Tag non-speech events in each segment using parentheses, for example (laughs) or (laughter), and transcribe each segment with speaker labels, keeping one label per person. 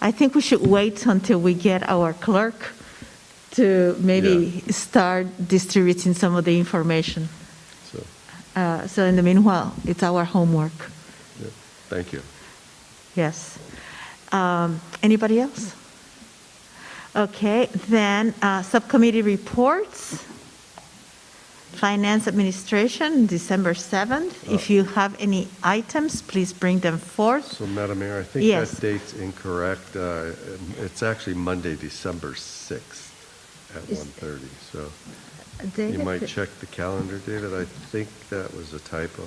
Speaker 1: I think we should wait until we get our clerk to maybe start distributing some of the information.
Speaker 2: So,
Speaker 1: Uh, So in the meanwhile, it's our homework,
Speaker 2: yeah, thank you.
Speaker 1: yes. Um, Anybody else? Okay, then uh, subcommittee reports. Finance Administration, December 7th.
Speaker 2: Uh.
Speaker 1: If you have any items, please bring them forth.
Speaker 2: So Madam Mayor, I think
Speaker 1: Yes.
Speaker 2: that date's incorrect. Uh, It's actually Monday, December 6th at
Speaker 1: Is-
Speaker 2: 1:30, so you
Speaker 1: David,
Speaker 2: might check the calendar, David. I think that was a typo.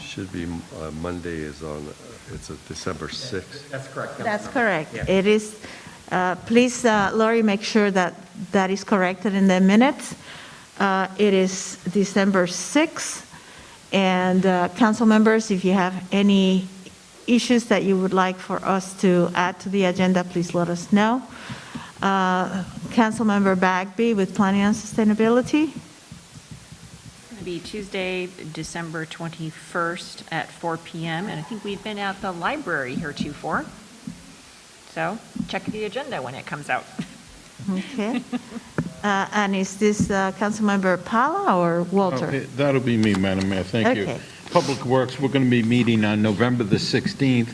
Speaker 2: Should be, uh, Monday is on, uh, it's a December 6th.
Speaker 3: That's correct.
Speaker 1: That's
Speaker 3: Councilmember.
Speaker 1: correct.
Speaker 3: Yeah.
Speaker 1: It is, uh, please, uh, Lori, make sure that that is corrected in the minutes. Uh, It is December 6th. And uh, council members, if you have any issues that you would like for us to add to the agenda, please let us know. Uh, Councilmember Bagby with Planning and Sustainability.
Speaker 4: It's going to be Tuesday, December 21st at 4 PM, and I think we've been at the library heretofore. So check the agenda when it comes out.
Speaker 1: Okay. Uh, And is this uh, Councilmember Pala or Walter?
Speaker 5: Okay, That'll be me, Madam Mayor, thank you.
Speaker 1: Okay.
Speaker 5: Public Works, we're going to be meeting on November the 16th.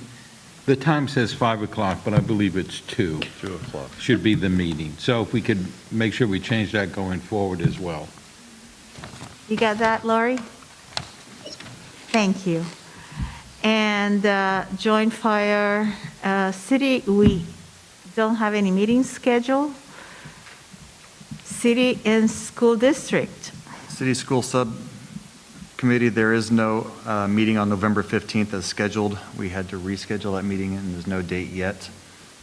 Speaker 5: The time says 5 o'clock, but I believe it's 2,
Speaker 2: 2 o'clock.
Speaker 5: should be the meeting. So if we could make sure we change that going forward as well.
Speaker 1: You got that, Laurie? Thank you. And uh, Joint Fire uh, City, we don't have any meetings scheduled. City and School District,
Speaker 3: City School Subcommittee, there is no uh, meeting on November 15th as scheduled. We had to reschedule that meeting, and there's no date yet.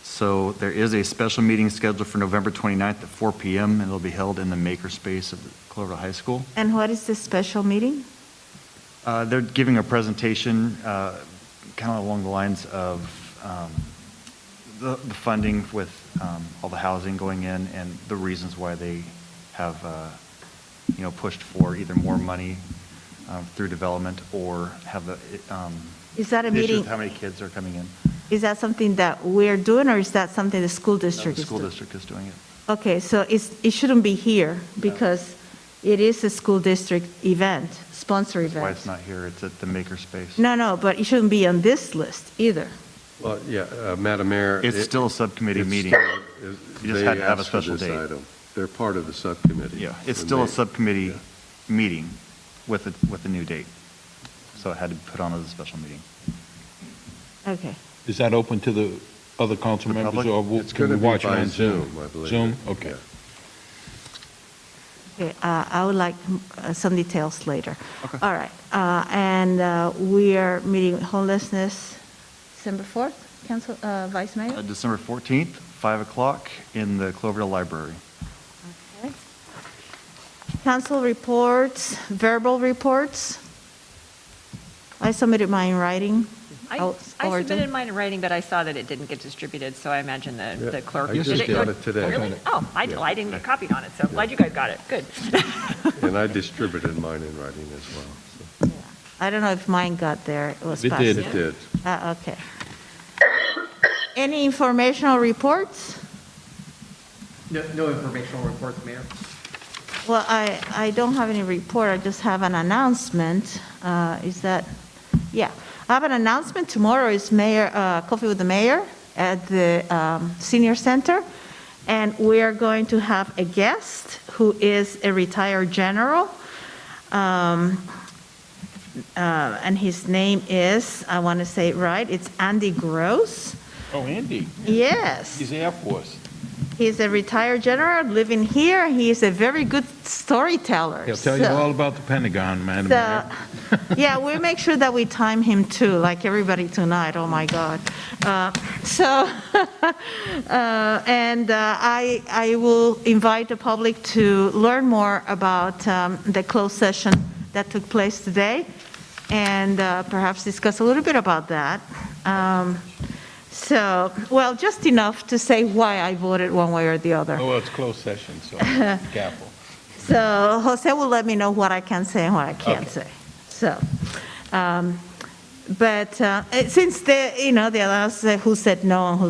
Speaker 3: So there is a special meeting scheduled for November 29th at 4 PM, and it'll be held in the makerspace of Cloverdale High School.
Speaker 1: and what is this special meeting?
Speaker 3: Uh, They're giving a presentation kind of along the lines of um, the the funding with um, all the housing going in and the reasons why they have, uh, you know, pushed for either more money um, through development or have the. um,
Speaker 1: Is that a
Speaker 3: issue
Speaker 1: meeting-
Speaker 3: with How many kids are coming in?
Speaker 1: Is that something that we're doing, or is that something the school
Speaker 3: The
Speaker 1: district is
Speaker 3: school
Speaker 1: doing?
Speaker 3: district is doing it.
Speaker 1: Okay, so it's, it shouldn't be here, because it is a school district event, sponsor
Speaker 3: That's
Speaker 1: event.
Speaker 3: why it's not here. It's at the makerspace.
Speaker 1: No, no, but it shouldn't be on this list either.
Speaker 2: Well, yeah, uh, Madam Mayor.
Speaker 3: It's
Speaker 2: it-
Speaker 3: still a subcommittee
Speaker 2: it's
Speaker 3: meeting.
Speaker 2: still- it-
Speaker 3: You just
Speaker 2: they
Speaker 3: had to have a
Speaker 2: asked for
Speaker 3: special
Speaker 2: this
Speaker 3: date.
Speaker 2: item. They're part of the subcommittee.
Speaker 3: Yeah, it's
Speaker 2: And
Speaker 3: still a
Speaker 2: they-
Speaker 3: subcommittee
Speaker 2: yeah.
Speaker 3: meeting with, a- with a new date. So it had to be put on as a special meeting.
Speaker 1: Okay.
Speaker 5: Is that open to the other council
Speaker 3: The
Speaker 5: members?
Speaker 3: public?
Speaker 5: or will-
Speaker 2: It's
Speaker 5: can
Speaker 2: going
Speaker 5: we
Speaker 2: to
Speaker 5: watch
Speaker 2: be
Speaker 5: it
Speaker 2: by
Speaker 5: on
Speaker 2: Zoom, I believe.
Speaker 5: Zoom,
Speaker 2: Yeah.
Speaker 5: okay.
Speaker 1: Okay, uh, I would like uh, some details later. All right, uh, and uh, we are meeting homelessness December 4th, Council, uh, Vice
Speaker 3: Uh,
Speaker 1: Mayor?
Speaker 3: December 14th, 5 o'clock, in the Cloverdale Library.
Speaker 1: Okay. Council reports, verbal reports. I submitted mine in writing. Oh,
Speaker 4: I
Speaker 1: I'll
Speaker 4: I
Speaker 1: forward them.
Speaker 4: submitted mine in writing, but I saw that it didn't get distributed, so I imagine
Speaker 2: Yeah,
Speaker 4: the the clerk.
Speaker 2: I
Speaker 4: did
Speaker 2: just
Speaker 4: go-
Speaker 2: got it today.
Speaker 4: Really? Oh, I
Speaker 2: Yeah.
Speaker 4: I didn't get copied on it, so glad you guys got it. Good. (laughs)
Speaker 2: And I distributed mine in writing as well. so.
Speaker 1: I don't know if mine got there, it was
Speaker 5: It
Speaker 1: passed.
Speaker 5: did.
Speaker 2: It did.
Speaker 1: Ah, Okay. Any informational reports?
Speaker 6: No, no informational reports, Mayor.
Speaker 1: Well, I, I don't have any report, I just have an announcement. Uh, Is that, yeah, I have an announcement. Tomorrow is Mayor, uh, Coffee with the Mayor at the um, Senior Center, and we are going to have a guest who is a retired general. Um, uh, And his name is, I want to say it right, it's Andy Gross.
Speaker 5: Oh, Andy,
Speaker 1: Yes.
Speaker 5: he's Air Force.
Speaker 1: He's a retired general living here. He is a very good storyteller.
Speaker 5: He'll tell you
Speaker 1: so-
Speaker 5: all about the Pentagon, Madam
Speaker 1: so-
Speaker 5: Mayor.
Speaker 1: Yeah, we make sure that we time him too, like everybody tonight. Oh, my God. Uh, So, (laughs) uh, and uh, I, I will invite the public to learn more about um, the closed session that took place today and uh, perhaps discuss a little bit about that. Um, So, well, just enough to say why I voted one way or the other.
Speaker 5: Oh, well, it's closed session,
Speaker 1: (laughs)
Speaker 5: so careful.
Speaker 1: So Jose will let me know what I can say and what I can't say. So, um, but uh, eh, since the, you know, they announced who said no and who